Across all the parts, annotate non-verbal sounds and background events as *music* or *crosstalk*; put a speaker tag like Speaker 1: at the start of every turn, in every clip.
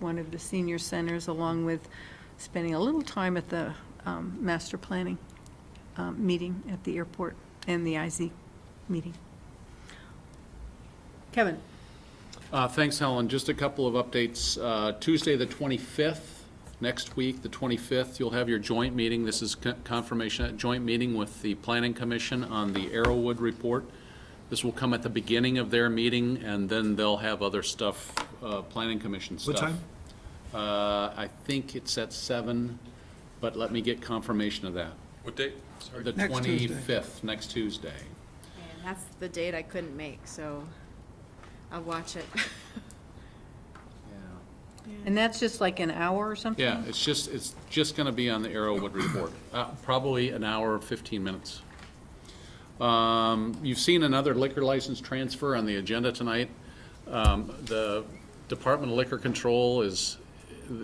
Speaker 1: one of the senior centers, along with spending a little time at the um, master planning um, meeting at the airport and the IZ meeting. Kevin?
Speaker 2: Uh, Thanks, Helen. Just a couple of updates. Uh, Tuesday, the 25th, next week, the 25th, you'll have your joint meeting. This is con- confirmation, joint meeting with the Planning Commission on the Arrowwood report. This will come at the beginning of their meeting, and then they'll have other stuff, uh, Planning Commission stuff.
Speaker 3: What time?
Speaker 2: Uh, I think it's at seven, but let me get confirmation of that.
Speaker 4: What date? Sorry.
Speaker 2: The
Speaker 3: Next Tuesday.
Speaker 2: 25th, next Tuesday.
Speaker 5: And that's the date I couldn't make, so I'll watch it. *laughs*
Speaker 2: Yeah.
Speaker 1: And that's just like an hour or something?
Speaker 2: Yeah, it's just, it's just going to be on the Arrowwood report, Uh, probably an hour, 15 minutes. Um, You've seen another liquor license transfer on the agenda tonight. Um, The Department of Liquor Control is,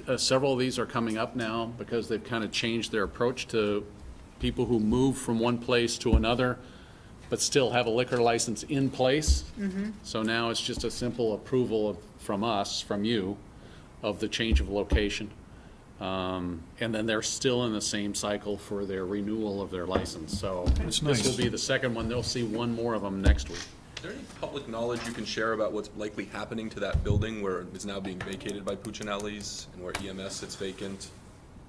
Speaker 2: uh, several of these are coming up now because they've kind of changed their approach to people who move from one place to another but still have a liquor license in place. So now it's just a simple approval of, from us, from you, of the change of location. Um, And then they're still in the same cycle for their renewal of their license, so
Speaker 3: That's
Speaker 2: this will
Speaker 3: nice.
Speaker 2: be the second one, they'll see one more of them next week.
Speaker 4: Is there any public knowledge you can share about what's likely happening to that building where it's now being vacated by Puccinelli's and where EMS sits vacant?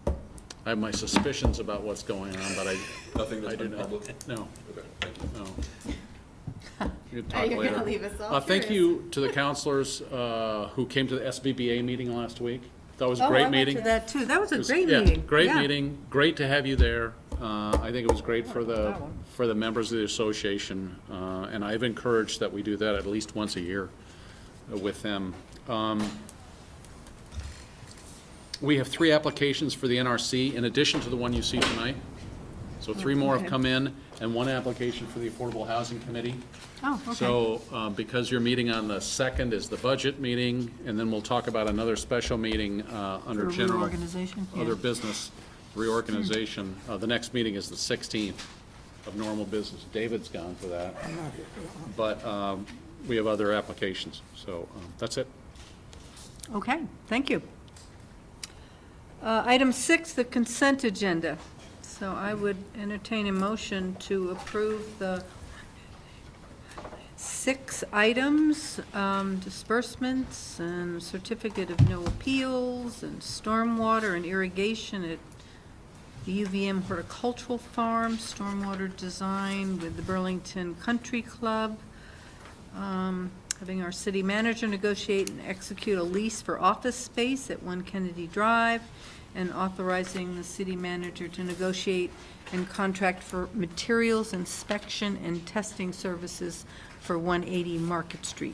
Speaker 2: I have my suspicions about what's going on, but I,
Speaker 4: Nothing that's
Speaker 2: I do
Speaker 4: been
Speaker 2: not,
Speaker 4: public?
Speaker 2: no,
Speaker 4: Okay, thank you.
Speaker 2: no. You can
Speaker 5: Now
Speaker 2: talk
Speaker 5: you're
Speaker 2: later.
Speaker 5: gonna leave us all
Speaker 2: Uh, Thank
Speaker 5: curious.
Speaker 2: you to the counselors uh, who came to the SBBA meeting last week. That was a
Speaker 1: Oh, I
Speaker 2: great
Speaker 1: went
Speaker 2: meeting.
Speaker 1: to that too. That was a
Speaker 2: It was-
Speaker 1: great
Speaker 2: yeah,
Speaker 1: meeting.
Speaker 2: Great
Speaker 1: Yeah.
Speaker 2: meeting, great to have you there. Uh, I think it was great for the,
Speaker 1: That one.
Speaker 2: for the members of the association, uh, and I've encouraged that we do that at least once a year uh, with them. Um, We have three applications for the NRC, in addition to the one you see tonight. So three more have
Speaker 1: Okay.
Speaker 2: come in, and one application for the Affordable Housing Committee.
Speaker 1: Oh, okay.
Speaker 2: So, uh, because your meeting on the second is the budget meeting, and then we'll talk about another special meeting uh, under
Speaker 1: For
Speaker 2: general.
Speaker 1: reorganization, yeah.
Speaker 2: Other business reorganization. Uh, The next meeting is the 16th of normal business. David's gone for that. But um, we have other applications, so um, that's it.
Speaker 1: Okay, thank you. Uh, Item six, the consent agenda. So I would entertain a motion to approve the six items, um, disbursements and certificate of no appeals and stormwater and irrigation at the UVM Horticultural Farm, stormwater design with the Burlington Country Club, um, having our city manager negotiate and execute a lease for office space at One Kennedy Drive, and authorizing the city manager to negotiate and contract for materials inspection and testing services for 180 Market Street.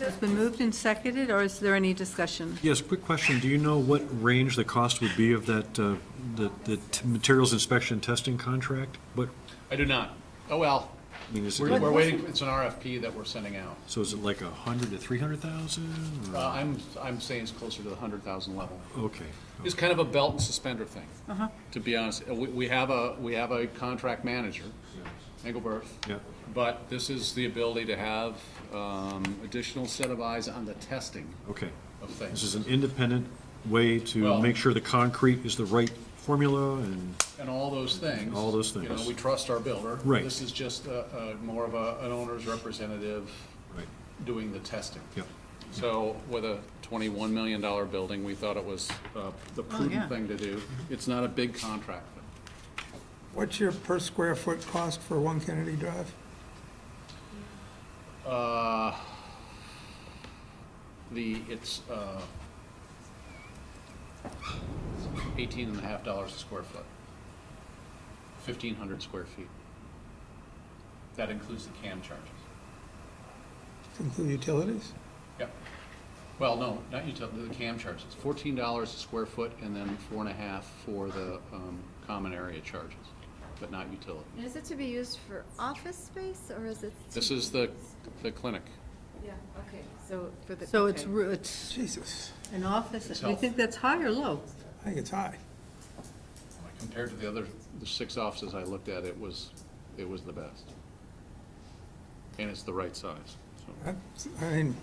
Speaker 1: It's been moved and seconded, or is there any discussion?
Speaker 3: Yes, quick question. Do you know what range the cost would be of that, uh, the the t- materials inspection testing contract? What,
Speaker 2: I do not. Oh, well,
Speaker 3: I mean, is
Speaker 2: we're
Speaker 3: it,
Speaker 2: we're waiting, it's an RFP that we're sending out.
Speaker 3: so is it like a hundred to three hundred thousand?
Speaker 2: Uh, I'm, I'm saying it's closer to the 100,000 level.
Speaker 3: Okay.
Speaker 2: It's kind of a belt and suspender thing, to be honest. Uh, We, we have a, we have a contract manager, Engelbert.
Speaker 3: Yeah.
Speaker 2: But this is the ability to have, um, additional set of eyes on the testing
Speaker 3: Okay.
Speaker 2: of
Speaker 3: This
Speaker 2: things.
Speaker 3: is an independent way
Speaker 2: Well-
Speaker 3: to make sure the concrete is the right formula and,
Speaker 2: And all those things.
Speaker 3: All those
Speaker 2: You know,
Speaker 3: things.
Speaker 2: we trust our builder.
Speaker 3: Right.
Speaker 2: This is just a, a more of a, an owner's representative
Speaker 3: right,
Speaker 2: doing the testing.
Speaker 3: yeah.
Speaker 2: So with a twenty-one million dollar building, we thought it was, uh, the
Speaker 1: yeah.
Speaker 2: prudent thing to do. It's not a big contract, but
Speaker 6: What's your per square foot cost for One Kennedy Drive?
Speaker 2: Uh, The, it's uh, eighteen and a half dollars a square foot. Fifteen hundred square feet. That includes the CAM charges.
Speaker 6: Include utilities?
Speaker 2: Yep. Well, no, not utility, the CAM charges. Fourteen dollars a square foot and then four and a half for the um, common area charges, but not utility.
Speaker 5: And is it to be used for office space, or is it?
Speaker 2: This is the, the clinic.
Speaker 5: Yeah, okay. So for the.
Speaker 1: So it's,
Speaker 5: okay.
Speaker 1: ru- it's
Speaker 6: Jesus,
Speaker 1: an office,
Speaker 2: It's
Speaker 1: do you
Speaker 2: health.
Speaker 1: think that's high or low?
Speaker 6: I think it's high.
Speaker 2: Compared to the other, the six offices I looked at, it was, it was the best. And it's the right size, so.
Speaker 6: I I mean,